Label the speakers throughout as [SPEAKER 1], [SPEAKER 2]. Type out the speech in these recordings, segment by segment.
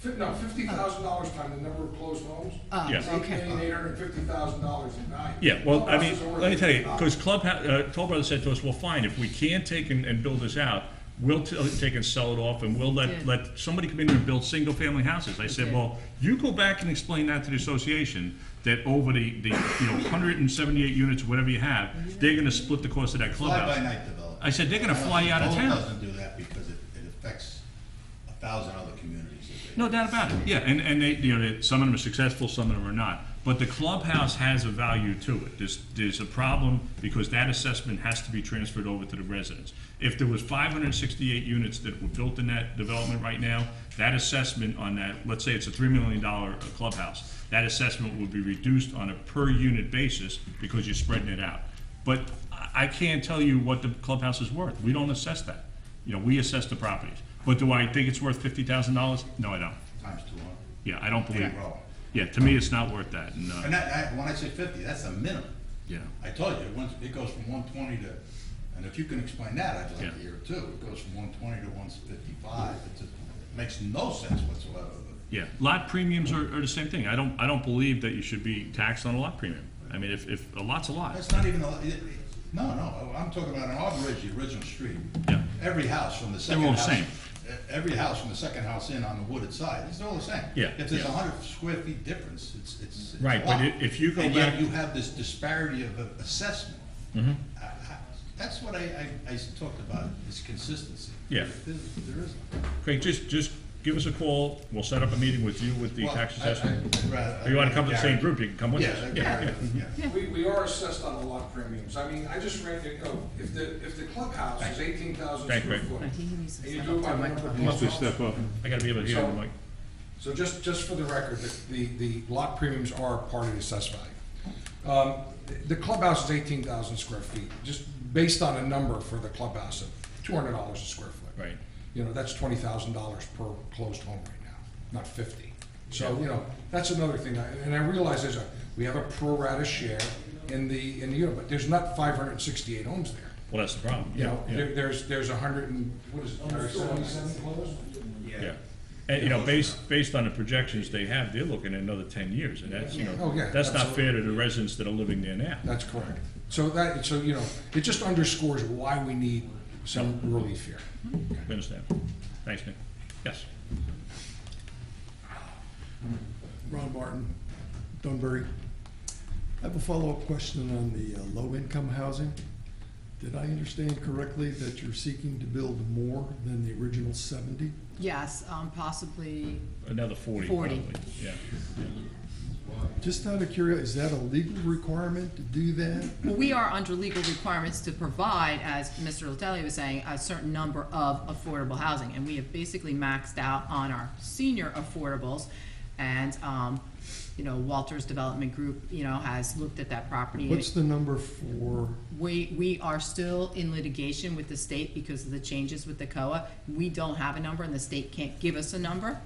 [SPEAKER 1] Fi- No, fifty thousand dollars times the number of closed homes.
[SPEAKER 2] Oh,
[SPEAKER 3] Yes.
[SPEAKER 2] okay.
[SPEAKER 1] Eight hundred and fifty thousand dollars in value.
[SPEAKER 3] Yeah, well, I
[SPEAKER 1] Clubhouses are
[SPEAKER 3] mean,
[SPEAKER 1] worth
[SPEAKER 3] let me tell you,
[SPEAKER 1] $50,000.
[SPEAKER 3] because Club, uh, Toll Brothers said to us, well, fine, if we can take and, and build this out, we'll t- uh, take and sell it off and we'll
[SPEAKER 2] Yeah.
[SPEAKER 3] let, let somebody come in here and build single-family houses. I said,
[SPEAKER 2] Okay.
[SPEAKER 3] well, you go back and explain that to the association, that over the, the, you know, hundred and seventy-eight units, whatever you have,
[SPEAKER 2] Mm-hmm.
[SPEAKER 3] they're gonna split the cost of that clubhouse.
[SPEAKER 4] Fly-by-night development.
[SPEAKER 3] I said, they're gonna
[SPEAKER 4] I don't
[SPEAKER 3] fly
[SPEAKER 4] think
[SPEAKER 3] you out of
[SPEAKER 4] Dole
[SPEAKER 3] town.
[SPEAKER 4] doesn't do that because it, it affects a thousand other communities. that they-
[SPEAKER 3] No doubt about it, yeah, and, and they, you know, they- some of them are successful, some of them are not. But the clubhouse has a value to it. There's, there's a problem because that assessment has to be transferred over to the residents. If there was five hundred and sixty-eight units that were built in that development right now, that assessment on that, let's say it's a three million dollar clubhouse, that assessment would be reduced on a per-unit basis because you're spreading it out. But I- I can't tell you what the clubhouse is worth. We don't assess that. You know, we assess the properties. But do I think it's worth fifty thousand dollars? No, I don't.
[SPEAKER 4] Times two hundred.
[SPEAKER 3] Yeah, I don't believe.
[SPEAKER 4] Yeah, well.
[SPEAKER 3] Yeah, to me, it's not worth that. And, uh,
[SPEAKER 4] And that, I, when I say fifty, that's the minimum.
[SPEAKER 3] yeah,
[SPEAKER 4] I told you, it went, it goes from one twenty to, and if you can explain that, I'd like
[SPEAKER 3] Yeah.
[SPEAKER 4] to hear it too. It goes from one twenty to one fifty-five. It just makes no sense whatsoever.
[SPEAKER 3] yeah. Lot premiums are, are the same thing. I don't, I don't believe that you should be taxed on a lot premium. I mean, if, if a lot's a lot,
[SPEAKER 4] That's not even, a- it- it- no, no, I'm talking about on our bridge, the original street.
[SPEAKER 3] Yeah.
[SPEAKER 4] Every house from the second
[SPEAKER 3] all the
[SPEAKER 4] house.
[SPEAKER 3] same.
[SPEAKER 4] e- Every house from the second house in on the wooded side, it's all the same.
[SPEAKER 3] Yeah,
[SPEAKER 4] If there's
[SPEAKER 3] yeah.
[SPEAKER 4] a hundred square feet difference, it's, it's. it's
[SPEAKER 3] Right,
[SPEAKER 4] a
[SPEAKER 3] but
[SPEAKER 4] lot.
[SPEAKER 3] i- if you go
[SPEAKER 4] And yet
[SPEAKER 3] back- Mm-hmm.
[SPEAKER 4] you have this disparity of uh, assessment. I- I- That's what I, I, I talked about, is consistency.
[SPEAKER 3] Yeah.
[SPEAKER 4] There there isn't.
[SPEAKER 3] Craig, just, just give us a call. We'll set up a meeting with you with the
[SPEAKER 4] Well,
[SPEAKER 3] tax
[SPEAKER 4] I- I-
[SPEAKER 3] assessor.
[SPEAKER 4] I'd rather-
[SPEAKER 3] If you wanna come to the same
[SPEAKER 4] Gary.
[SPEAKER 3] group, you can come with
[SPEAKER 4] Yeah,
[SPEAKER 3] us.
[SPEAKER 4] I'd
[SPEAKER 3] Yeah,
[SPEAKER 4] rather- yeah.
[SPEAKER 1] We, we are assessed on a lot premiums. I mean, I just ran, you know, if the, if the clubhouse is eighteen thousand
[SPEAKER 3] Thank
[SPEAKER 1] square
[SPEAKER 3] you.
[SPEAKER 1] foot.
[SPEAKER 2] I
[SPEAKER 1] And
[SPEAKER 2] think he needs to
[SPEAKER 1] you
[SPEAKER 2] step
[SPEAKER 1] do
[SPEAKER 2] up
[SPEAKER 1] it
[SPEAKER 2] to
[SPEAKER 1] by
[SPEAKER 2] the
[SPEAKER 1] number of closed
[SPEAKER 2] microphone.
[SPEAKER 5] Must be
[SPEAKER 1] homes.
[SPEAKER 5] step up.
[SPEAKER 3] I gotta be able to hear
[SPEAKER 1] So-
[SPEAKER 3] the mic.
[SPEAKER 1] So just, just for the record, the, the, the lot premiums are part of the assessed value. Um, The clubhouse is eighteen thousand square feet, just based on a number for the clubhouse of two hundred dollars a square foot.
[SPEAKER 3] Right.
[SPEAKER 1] You know, that's twenty thousand dollars per closed home right now, not fifty. So, you know, that's another thing, I- and I realize there's a, we have a pro rata share in the, in the unit, but there's not five hundred and sixty-eight homes there.
[SPEAKER 3] Well, that's the problem.
[SPEAKER 1] You know,
[SPEAKER 3] Yeah,
[SPEAKER 1] there- there's, there's a hundred and, what is it, seventy-seven closed?
[SPEAKER 3] Yeah. And, you know, based, based on the projections they have, they're looking at another ten years, and that's, you know,
[SPEAKER 1] Oh, yeah,
[SPEAKER 3] that's not fair to the residents that are living there now.
[SPEAKER 1] That's correct. So that, so, you know, it just underscores why we need some relief here.
[SPEAKER 3] I understand. Thanks, Nick. Yes.
[SPEAKER 6] Ron Martin, Dunbury. I have a follow-up question on the uh, low-income housing. Did I understand correctly that you're seeking to build more than the original seventy?
[SPEAKER 2] Yes, um, possibly,
[SPEAKER 3] Another forty,
[SPEAKER 2] Forty.
[SPEAKER 3] probably, yeah.
[SPEAKER 6] Just out of curiosity, is that a legal requirement to do that?
[SPEAKER 2] well, we are under legal requirements to provide, as Mr. Latelli was saying, a certain number of affordable housing. And we have basically maxed out on our senior affordables. And, um, you know, Walters Development Group, you know, has looked at that property. and
[SPEAKER 6] What's the number for,
[SPEAKER 2] We, we are still in litigation with the state because of the changes with the COA. We don't have a number and the state can't give us a number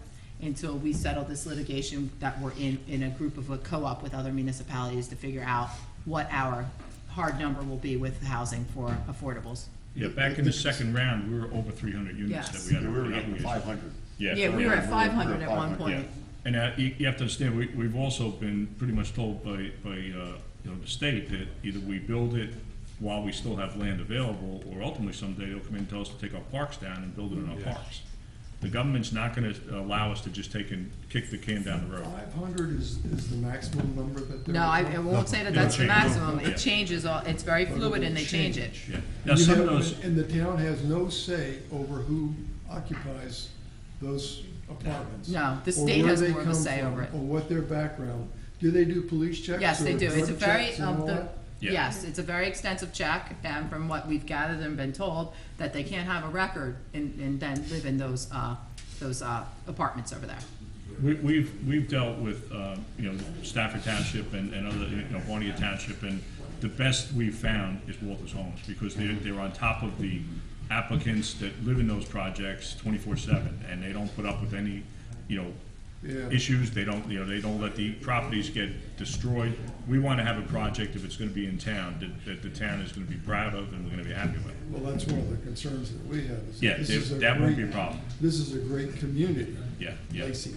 [SPEAKER 2] until we settle this litigation that we're in, in a group of a co-op with other municipalities to figure out what our hard number will be with housing for affordables.
[SPEAKER 3] Yeah, back in the second round, we were over three hundred units that
[SPEAKER 2] Yes.
[SPEAKER 3] we had.
[SPEAKER 7] We were
[SPEAKER 3] Yeah,
[SPEAKER 7] getting five hundred.
[SPEAKER 2] Yeah,
[SPEAKER 3] Yeah,
[SPEAKER 2] we were at five hundred at one
[SPEAKER 7] 500,
[SPEAKER 3] yeah.
[SPEAKER 2] point.
[SPEAKER 3] And uh, you, you have to understand, we, we've also been pretty much told by, by, uh, you know, the state that either we build it while we still have land available, or ultimately someday they'll come in and tell us to take our parks down and build it in our parks. The government's not gonna allow us to just take and kick the can down the road.
[SPEAKER 6] five hundred is, is the maximum number that they're?
[SPEAKER 2] No, I, I
[SPEAKER 6] requiring?
[SPEAKER 2] won't say that
[SPEAKER 3] It'll
[SPEAKER 2] that's the
[SPEAKER 3] change.
[SPEAKER 2] maximum.
[SPEAKER 3] Yeah.
[SPEAKER 2] It changes all, it's very
[SPEAKER 6] But it
[SPEAKER 2] fluid
[SPEAKER 6] will
[SPEAKER 2] and they change it.
[SPEAKER 3] Yeah. Now,
[SPEAKER 6] And you
[SPEAKER 3] some of
[SPEAKER 6] have-
[SPEAKER 3] those,
[SPEAKER 6] And the town has no say over who occupies those apartments?
[SPEAKER 2] No, the
[SPEAKER 6] or
[SPEAKER 2] state
[SPEAKER 6] where
[SPEAKER 2] has
[SPEAKER 6] they
[SPEAKER 2] more of a
[SPEAKER 6] come
[SPEAKER 2] say
[SPEAKER 6] from,
[SPEAKER 2] over it.
[SPEAKER 6] Or what their background, do they do police checks?
[SPEAKER 2] Yes, they
[SPEAKER 6] or
[SPEAKER 2] do. It's a
[SPEAKER 6] drug
[SPEAKER 2] very,
[SPEAKER 6] checks and
[SPEAKER 2] um,
[SPEAKER 6] all
[SPEAKER 2] the-
[SPEAKER 6] that?
[SPEAKER 3] Yeah.
[SPEAKER 2] yes, it's a very extensive check, and from what we've gathered and been told, that they can't have a record and, and then live in those, uh, those, uh, apartments over there.
[SPEAKER 3] We- We've, we've dealt with, um, you know, Stafford Township and and other, you know, Barnegat Township, and the best we've found is Walters Homes, because they're, they're on top of the applicants that live in those projects twenty-four seven, and they don't put up with any, you know,
[SPEAKER 6] Yeah.
[SPEAKER 3] issues, they don't, you know, they don't let the properties get destroyed. We want to have a project, if it's going to be in town, that, that the town is going to be proud of and we're going to be happy with.
[SPEAKER 6] Well, that's one of the concerns that we have. is
[SPEAKER 3] Yeah,
[SPEAKER 6] this
[SPEAKER 3] they-
[SPEAKER 6] is a
[SPEAKER 3] that won't
[SPEAKER 6] great-
[SPEAKER 3] be a problem.
[SPEAKER 6] This is a great community.
[SPEAKER 3] Yeah, yeah.
[SPEAKER 6] Lacey